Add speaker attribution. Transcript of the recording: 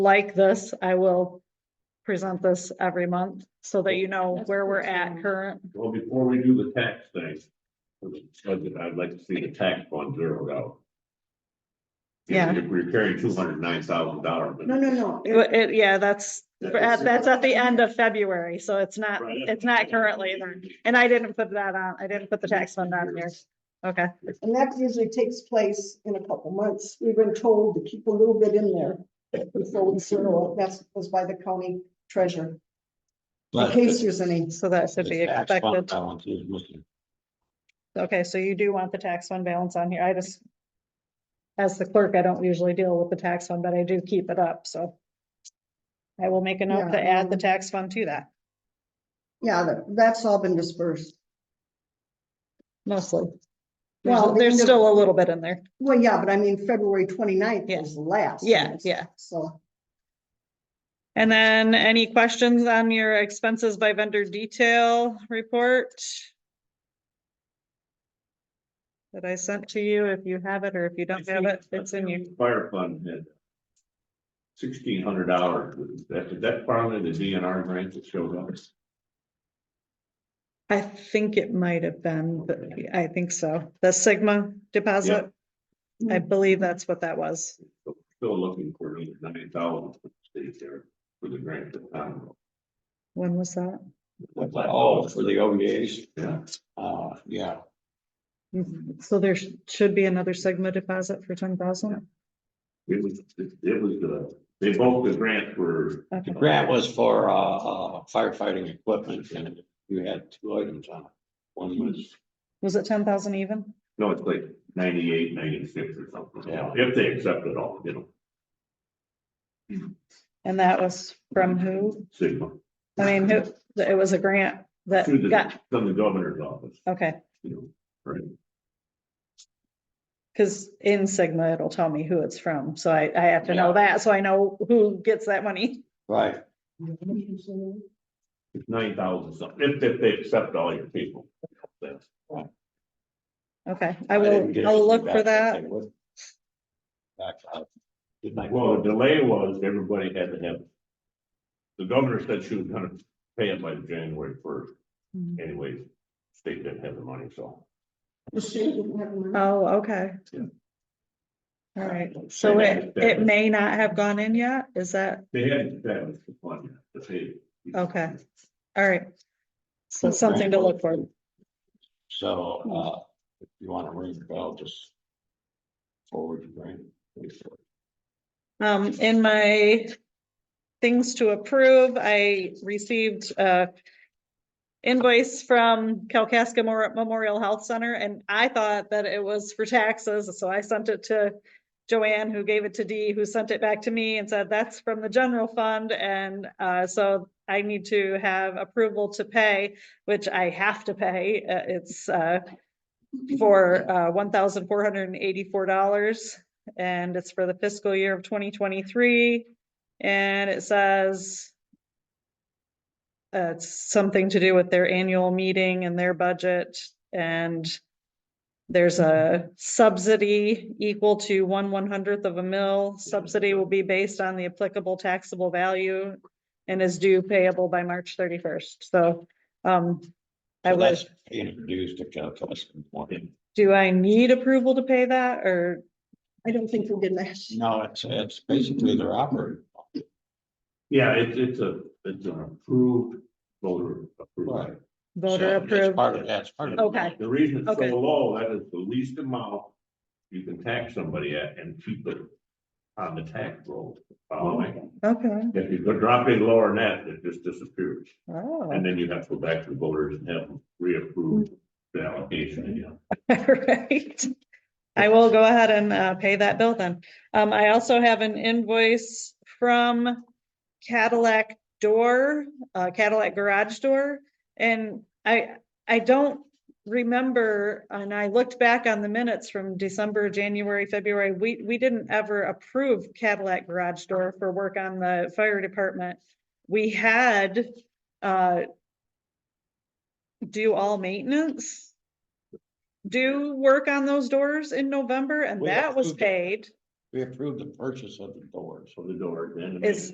Speaker 1: like this, I will present this every month so that you know
Speaker 2: That's
Speaker 1: where we're at
Speaker 2: awesome.
Speaker 1: current.
Speaker 3: Well, before we do the tax thing, for the budget, I'd like to see the tax fund zeroed out. If-
Speaker 1: Yeah.
Speaker 3: If we're carrying two hundred nine thousand dollars.
Speaker 2: No, no, no. it-
Speaker 1: But it- yeah, that's,
Speaker 3: That is-
Speaker 1: that's at the end of February, so it's not,
Speaker 3: Right.
Speaker 1: it's not currently there. And I didn't put that on, I didn't put the tax fund on here. Okay,
Speaker 2: And that usually takes place in a couple months. We've been told to keep a little bit in there. Before we zero, it. that's was by the county treasurer, in
Speaker 4: But
Speaker 2: case there's any.
Speaker 1: so that should be
Speaker 4: the tax fund
Speaker 1: expected.
Speaker 4: balance is missing.
Speaker 1: Okay, so you do want the tax fund balance on here. I just. As the clerk, I don't usually deal with the tax fund, but I do keep it up, so. I will make a note to
Speaker 2: Yeah,
Speaker 1: add the
Speaker 2: um,
Speaker 1: tax fund to that
Speaker 2: Yeah, that- that's all been dispersed.
Speaker 1: mostly.
Speaker 2: Well,
Speaker 1: Well,
Speaker 2: the
Speaker 1: there's
Speaker 2: end of-
Speaker 1: still a little bit in there.
Speaker 2: Well, yeah, but I mean, February 29th
Speaker 1: Yeah.
Speaker 2: is the last.
Speaker 1: Yeah,
Speaker 2: yes.
Speaker 1: yeah.
Speaker 2: So,
Speaker 1: And then any questions on your expenses by vendor detail report? That I sent to you, if you have it, or if you don't have it, it's in you.
Speaker 3: Fire fund had sixteen hundred dollars. That, is that part of the DNR grant that showed up?
Speaker 1: I think it might have been, but I think so. The Sigma deposit. I believe that's what that was.
Speaker 3: Still looking for another nine thousand to stay there for the grant. that time.
Speaker 1: When was that?
Speaker 4: Oh, for the OEAs,
Speaker 3: Yeah,
Speaker 4: uh, yeah,
Speaker 1: Mm-hmm. So there sh- should be another Sigma deposit for ten thousand?
Speaker 3: it was, it it was, uh, they both the grants were,
Speaker 4: the grant was for uh, uh, firefighting equipment and you had two items on it. One was,
Speaker 1: Was it ten thousand even?
Speaker 3: no, it's like ninety-eight, ninety-six or something.
Speaker 4: Yeah.
Speaker 3: If they accept it all, you know,
Speaker 1: And that was from who?
Speaker 3: Sigma.
Speaker 1: I mean, who, it was a grant that
Speaker 3: Through the,
Speaker 1: got,
Speaker 3: from the governor's office,
Speaker 1: okay,
Speaker 3: you know, right?
Speaker 1: because in Sigma, it'll tell me who it's from, so I, I have to know
Speaker 4: Yeah.
Speaker 1: that, so I know who gets that money.
Speaker 4: right,
Speaker 3: It's nine thousand something, if, if they accept all your people. That's-
Speaker 1: Okay, I
Speaker 4: didn't get
Speaker 1: will, I'll look for
Speaker 4: feedback
Speaker 1: that.
Speaker 4: they would. Back out. Didn't I-
Speaker 3: Well, the delay was everybody had to have. The governor said she was gonna pay it by January first,
Speaker 1: Mhm.
Speaker 3: anyways, state didn't have the money, so.
Speaker 2: the state didn't have money.
Speaker 1: Oh, okay.
Speaker 3: Yeah.
Speaker 1: All right, so it, it may not have gone in yet, is that?
Speaker 3: They hadn't established the fund, yet, but they.
Speaker 1: Okay. All right. So
Speaker 4: Well,
Speaker 1: something to
Speaker 4: Frank,
Speaker 1: look for.
Speaker 4: So, uh, if you want to ring the bell, just forward the grant.
Speaker 1: Um, in my things to approve, I received a invoice from Calcasas Mor- Memorial Health Center, and I thought that it was for taxes, so I sent it to Joanne, who gave it to Dee, who sent it back to me and said, that's from the general fund, and, uh, so I need to have approval to pay, which I have to pay, uh, it's, uh, for, uh, one thousand four hundred and eighty-four dollars and it's for the fiscal year of twenty twenty-three. And it says uh, it's something to do with their annual meeting and their budget and there's a subsidy equal to one one hundredth of a mil. Subsidy will be based on the applicable taxable value and is due payable by March thirty-first. So, um, I
Speaker 4: So
Speaker 1: was,
Speaker 4: that's Introduced to Calcas.
Speaker 1: do I need approval to pay that or?
Speaker 2: I don't think we did that.
Speaker 4: No, it's, it's basically their operating.
Speaker 3: Yeah, it's, it's a, it's an approved voter. approval.
Speaker 4: Right.
Speaker 1: Voter
Speaker 4: So it's
Speaker 1: approved.
Speaker 4: Part of that's part of. it.
Speaker 1: Okay.
Speaker 3: The reason it's so
Speaker 1: Okay.
Speaker 3: low, that is the least amount you can tax somebody at and keep it on the tax roll. Following,
Speaker 1: Okay.
Speaker 3: if you go drop it lower than that, it just disappears.
Speaker 1: Oh.
Speaker 3: And then you have to go back to the voters and have them reapprove the allocation again.
Speaker 1: Right. I will go ahead and uh, pay that bill then. Um, I also have an invoice from Cadillac Door, uh, Cadillac Garage Door. And I, I don't remember, and I looked back on the minutes from December, January, February. We, we didn't ever approve Cadillac Garage Door for work on the fire department. We had, uh, do all maintenance do work on those doors in November and
Speaker 4: We
Speaker 1: that was
Speaker 4: approved it.
Speaker 1: paid.
Speaker 5: we approved the purchase of the doors.
Speaker 4: So the door, then.
Speaker 3: Is-